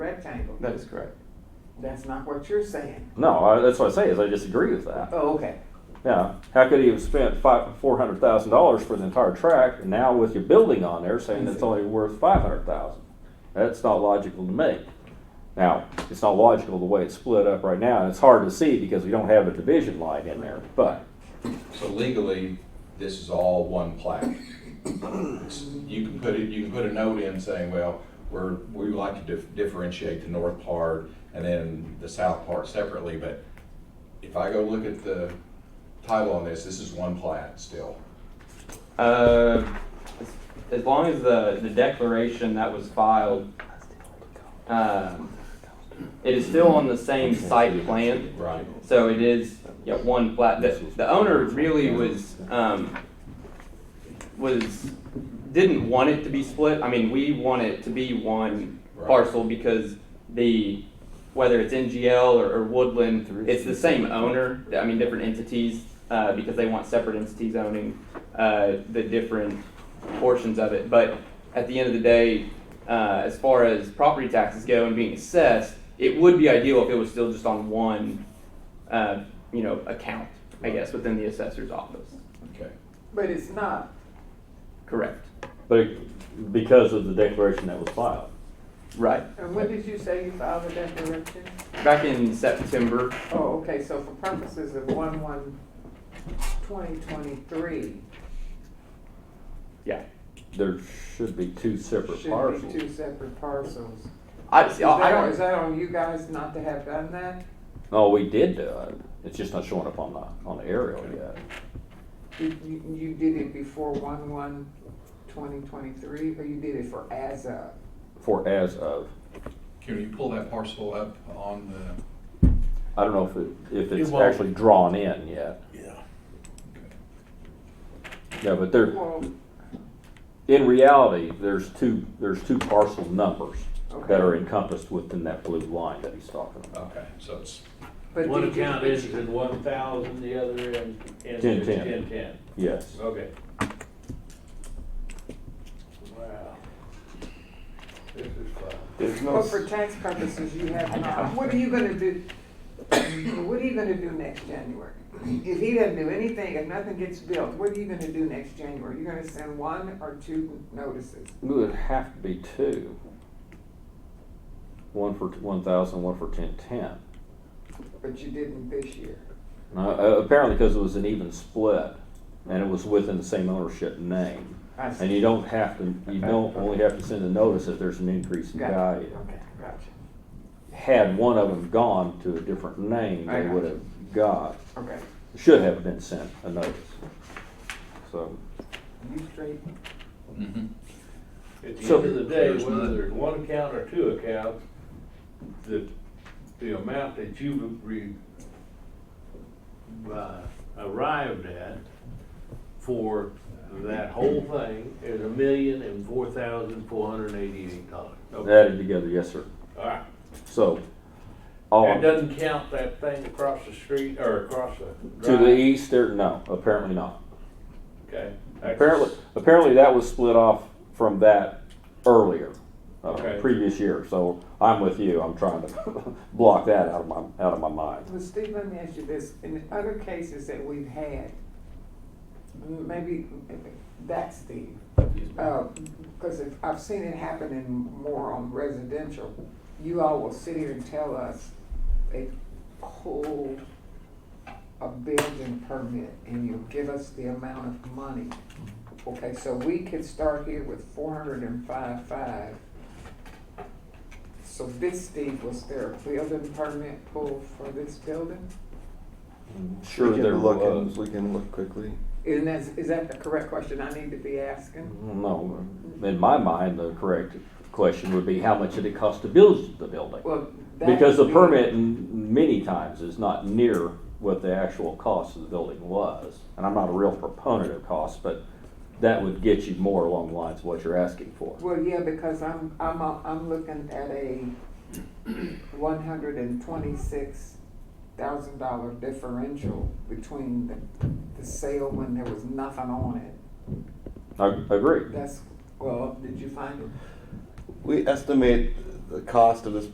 rectangle. That is correct. That's not what you're saying. No, I, that's what I say is I disagree with that. Oh, okay. Yeah, how could he have spent five, four hundred thousand dollars for the entire tract, and now with your building on there saying it's only worth five hundred thousand? That's not logical to me. Now, it's not logical the way it's split up right now, and it's hard to see because we don't have a division line in there, but, So legally, this is all one plat. It's- You can put it, you can put a note in saying, well, we're, we would like to dif- differentiate the north part and then the south part separately, but if I go look at the title on this, this is one plat still. Uh, as, as long as the, the declaration that was filed, um, it is still on the same site plan. Right. So it is, yeah, one plat. The, the owner really was, um, was, didn't want it to be split. I mean, we want it to be one Right. parcel because the, whether it's NGL or, or Woodland, it's the same owner, I mean, different entities, uh, because they want separate entities owning, uh, the different portions of it. But at the end of the day, uh, as far as property taxes go and being assessed, it would be ideal if it was still just on one, uh, you know, account, I guess, within the assessor's office. Okay. But it's not. Correct. but it- because of the declaration that was filed. Right. And when did you say you filed the declaration? Back in September, Oh, okay, so for purposes of one, one, twenty twenty-three, yeah. There should be two separate should be parcels. two separate parcels. I, Is see, Oh, I that- don't. Is that on you guys not to have done that? No, we did do it, it's just not showing up on the, on the aerial yet. You, you- you did it before one, one, twenty twenty-three, or you did it for as of? For as of, Can you pull that parcel up on the, I don't know if it, if it's It won't. actually drawn in yet. Yeah, but there, Well, In reality, there's two, there's two parcel numbers Okay. that are encompassed within that blue line that he's talking about. Okay, so it's, but One did you- account ends in one thousand, the other ends ends Ten, in ten. ten ten. Yes. Okay. Wow. This is fun. There's no, But for tax purposes, you have not. What are you gonna do, what are you gonna do next January? If he doesn't do anything, if nothing gets built, what are you gonna do next January? You're gonna send one or two notices? It would have to be two. One for one thousand, one for ten ten. But you didn't this year. Now, uh, apparently because it was an even split and it was within the same ownership name. I And see. you don't have to, you don't only have to send a notice if there's an increase in Gotcha, value. okay, gotcha, Had one of them gone to a different name, I they got would have got, okay. should have been sent a notice. So. You straight, At the So- end of the day, There's whether none. there's one account or two accounts, the, the amount that you re, uh, arrived at for that whole thing is a million and four thousand four hundred and eighty-eight dollars. Okay, added together, yes, sir. all right. So, all That doesn't count that thing across the street, or across the to the drive, east there, no, apparently not. okay? That's- Apparently, apparently that was split off from that earlier, uh, Okay. previous year. So I'm with you. I'm trying to block that out of my out of my mind. well, Steve, let me ask you this, in other cases that we've had, maybe, that's Steve, because I've seen it happen in more on residential. You all will sit here and tell us they pulled a building permit and you'll give us the amount of money. Okay, so we could start here with four hundred and five five. So this, Steve, was there a building permit pulled for this building? we Sure, there can look, and was. we can look quickly. Isn't that, is that the correct question I need to be asking? No, in my mind, the correct question would be how much did it cost to build the building? Well, that Because the would be- permit m- many times is not near what the actual cost of the building was. And I'm not a real proponent of cost, but that would get you more along the lines of what you're asking for. Well, yeah, because I'm, I'm, I'm looking at a one hundred and twenty-six thousand dollar differential between the, the sale when there was nothing on it. I I agree. That's, well, did you find it? We estimate the cost of this